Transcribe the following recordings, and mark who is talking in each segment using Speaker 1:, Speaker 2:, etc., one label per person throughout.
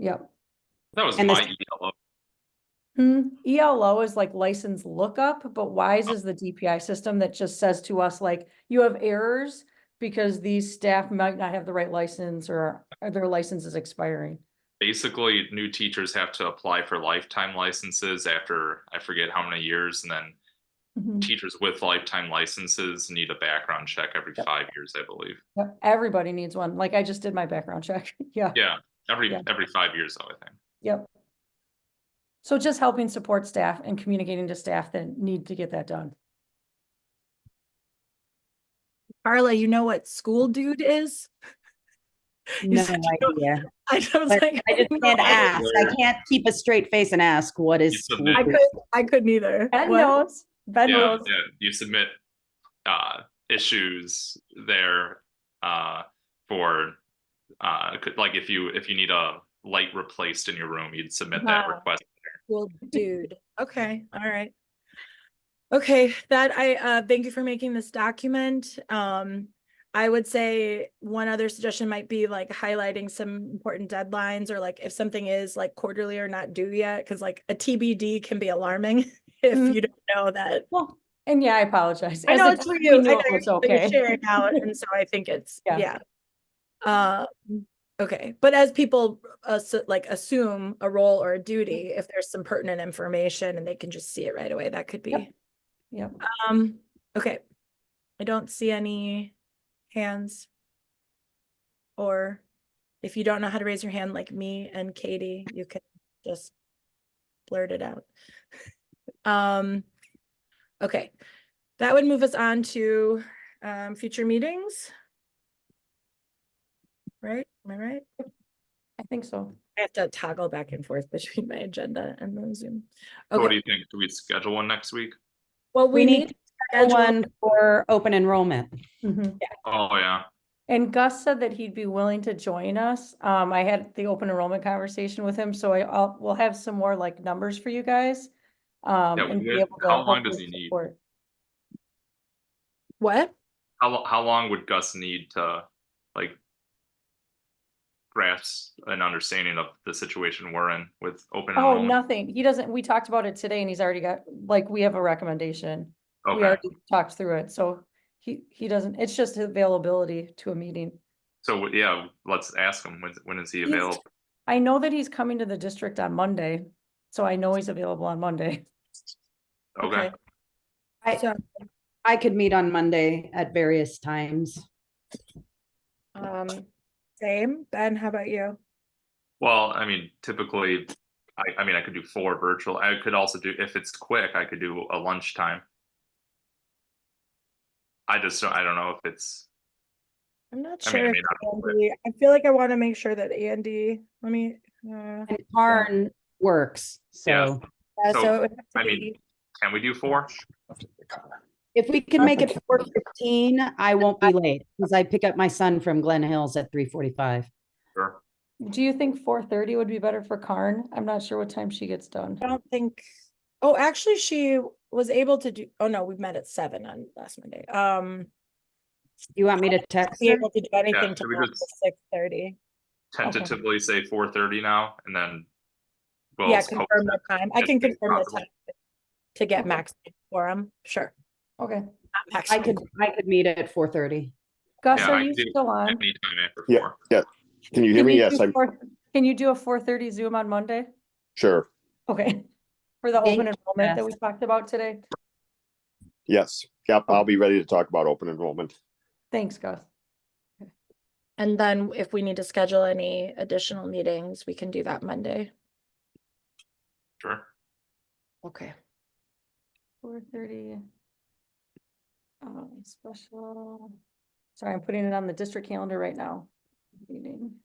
Speaker 1: Yep.
Speaker 2: That was
Speaker 3: And the
Speaker 2: my E
Speaker 3: s-
Speaker 2: ELO.
Speaker 1: Hmm, ELO is like license lookup, but WISE is the DPI system that just says to us like, you have errors because these staff might not have the right license or or their license is expiring.
Speaker 2: Basically, new teachers have to apply for lifetime licenses after, I forget how many years, and then
Speaker 1: Mhm.
Speaker 2: teachers with lifetime licenses need a background check every
Speaker 1: Yep.
Speaker 2: five years, I believe.
Speaker 1: Yep, Everybody needs one. Like I just did my background check. Yeah,
Speaker 2: Yeah, every,
Speaker 1: Yeah.
Speaker 2: every five years, though, I think.
Speaker 1: yep. So just helping support staff and communicating to staff that need to get that done.
Speaker 4: Carla, you know what school dude is? You
Speaker 3: No
Speaker 4: said you don't-
Speaker 3: idea.
Speaker 4: I was
Speaker 3: But
Speaker 4: like,
Speaker 3: I just
Speaker 4: don't
Speaker 3: can't
Speaker 4: know.
Speaker 3: ask. I
Speaker 2: Where-
Speaker 3: can't keep a straight face and ask what is.
Speaker 2: You
Speaker 3: school
Speaker 2: submit-
Speaker 4: I
Speaker 3: food?"
Speaker 4: could, I couldn't either.
Speaker 1: Ben
Speaker 4: What?
Speaker 1: knows, Ben
Speaker 2: Yeah,
Speaker 1: knows.
Speaker 2: yeah, you submit, uh, issues there, uh, for, uh, could- like if you, if you need a light replaced in your room, you'd submit that
Speaker 1: Wow.
Speaker 2: request.
Speaker 4: Well, dude. Okay, all right. Okay, that I, uh, thank you for making this document. Um, I would say one other suggestion might be like highlighting some important deadlines or like if something is like quarterly or not due yet, because like a TBD can be alarming
Speaker 1: Mhm.
Speaker 3: Mm-hmm.
Speaker 4: if you don't know that.
Speaker 1: Well, and yeah, I apologize.
Speaker 4: I
Speaker 1: As
Speaker 4: know
Speaker 1: a
Speaker 4: it's
Speaker 1: team,
Speaker 4: for
Speaker 1: we
Speaker 4: you. I
Speaker 1: knew
Speaker 4: know
Speaker 1: it
Speaker 4: you're-
Speaker 1: was
Speaker 4: you're
Speaker 1: okay.
Speaker 4: Sharing out, and so I think it's,
Speaker 1: Yeah.
Speaker 4: yeah. Uh, okay, but as people, uh, like assume a role or a duty, if there's some pertinent information and they can just see it right away, that could
Speaker 1: Yep.
Speaker 4: be,
Speaker 1: Yep.
Speaker 4: um, okay. I don't see any hands. Or if you don't know how to raise your hand like me and Katie, you can just blurt it out. Um, okay, that would move us on to um future meetings. Right, am I right?
Speaker 1: I think so.
Speaker 4: I have to toggle back and forth between my agenda and the Zoom.
Speaker 2: What do
Speaker 4: Okay,
Speaker 2: you think? Do we schedule one next week?
Speaker 4: well, we
Speaker 3: We need
Speaker 4: need. to schedule-
Speaker 3: One for open enrollment.
Speaker 1: Mhm.
Speaker 2: Oh, yeah.
Speaker 1: And Gus said that he'd be willing to join us. Um, I had the open enrollment conversation with him, so I, I'll, we'll have some more like numbers for you guys. Um,
Speaker 2: Yeah, we
Speaker 1: and be
Speaker 2: did-
Speaker 1: able to.
Speaker 2: how long does
Speaker 1: hopefully
Speaker 2: he need?
Speaker 1: support.
Speaker 4: What?
Speaker 2: How, lo- how long would Gus need to, like, grasp an understanding of the situation we're in with open
Speaker 1: Oh,
Speaker 2: enrollment?
Speaker 1: nothing. He doesn't, we talked about it today and he's already got, like, we have a recommendation. We
Speaker 2: Okay,
Speaker 1: already talked through it, so he, he doesn't, it's just availability to a meeting.
Speaker 2: so, yeah, let's ask him, when, when is he
Speaker 1: He's-
Speaker 2: available?
Speaker 1: I know that he's coming to the district on Monday, so I know he's available on Monday.
Speaker 2: Okay,
Speaker 3: I-
Speaker 4: So,
Speaker 3: I could meet on Monday at various times.
Speaker 4: um, same, Ben, how about you?
Speaker 2: well, I mean, typically, I, I mean, I could do four virtual, I could also do, if it's quick, I could do a lunchtime. I just, don't I don't know if it's,
Speaker 4: I'm not
Speaker 2: I
Speaker 4: sure.
Speaker 2: mean, I
Speaker 4: if Andy,
Speaker 2: mean,
Speaker 4: I feel like I want to make sure that Andy, let me, uh,
Speaker 3: And Karn works.
Speaker 2: Yeah.
Speaker 3: So
Speaker 4: yeah,
Speaker 2: So,
Speaker 4: so it would have
Speaker 2: I
Speaker 4: to
Speaker 2: mean-
Speaker 4: be,
Speaker 2: can we do four?
Speaker 3: if we can make it four fifteen, I won't be late because I pick up my son from Glen Hills at three forty-five.
Speaker 2: Sure,
Speaker 1: Do you think four thirty would be better for Karn? I'm not sure what time she gets done.
Speaker 4: I don't think, oh, actually, she was able to do, oh no, we met at seven on last Monday. Um,
Speaker 3: You want me to text?
Speaker 4: be
Speaker 3: her?
Speaker 4: able to do anything
Speaker 2: should we
Speaker 4: till
Speaker 2: just-
Speaker 4: six thirty.
Speaker 1: Okay.
Speaker 2: tentatively say four thirty now, and then. we'll
Speaker 4: Yeah,
Speaker 2: post
Speaker 4: confirm
Speaker 2: it.
Speaker 4: the time. I
Speaker 2: as
Speaker 4: can
Speaker 2: soon as
Speaker 4: confirm the
Speaker 2: possible.
Speaker 4: time to get
Speaker 1: Okay.
Speaker 4: max quorum, sure.
Speaker 1: Okay,
Speaker 4: not max
Speaker 3: I could, I could meet at four thirty.
Speaker 1: Gus,
Speaker 2: Yeah,
Speaker 1: are
Speaker 2: I
Speaker 1: you
Speaker 2: do.
Speaker 1: still on?
Speaker 2: Anytime after
Speaker 5: Yeah.
Speaker 2: four.
Speaker 5: Can you hear
Speaker 1: Can
Speaker 5: me?
Speaker 1: you
Speaker 5: Yes,
Speaker 1: do
Speaker 5: I'm
Speaker 1: four- Can you do a four thirty Zoom on Monday?
Speaker 5: sure.
Speaker 1: Okay, for the
Speaker 3: Thank
Speaker 1: open
Speaker 3: you,
Speaker 1: enrollment that
Speaker 3: Jess.
Speaker 1: we talked about today.
Speaker 5: Yes. Yep. I'll be ready to talk about open enrollment.
Speaker 1: Thanks, Gus.
Speaker 4: And then if we need to schedule any additional meetings, we can do that Monday.
Speaker 2: Sure.
Speaker 4: Okay.
Speaker 1: Four thirty. Um, special. Sorry, I'm putting it on the district calendar right now. Meeting.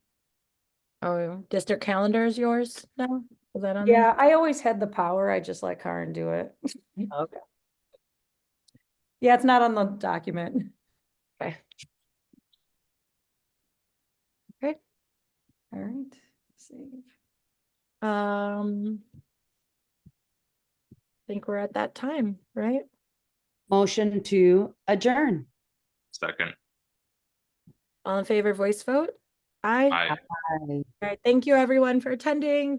Speaker 4: Oh, district calendar is yours now? Is that on? there?
Speaker 1: Yeah, I always had the power. I just let Karen do it.
Speaker 3: Okay.
Speaker 1: Yeah, it's not on the document.
Speaker 4: Okay.
Speaker 1: Okay.
Speaker 4: Okay.
Speaker 1: All right, save.
Speaker 4: Um. I Think we're at that time, right?
Speaker 3: Motion to adjourn.
Speaker 2: Second.
Speaker 4: All in favor, voice vote? Aye.
Speaker 2: I
Speaker 4: All right. Thank you, everyone, for attending.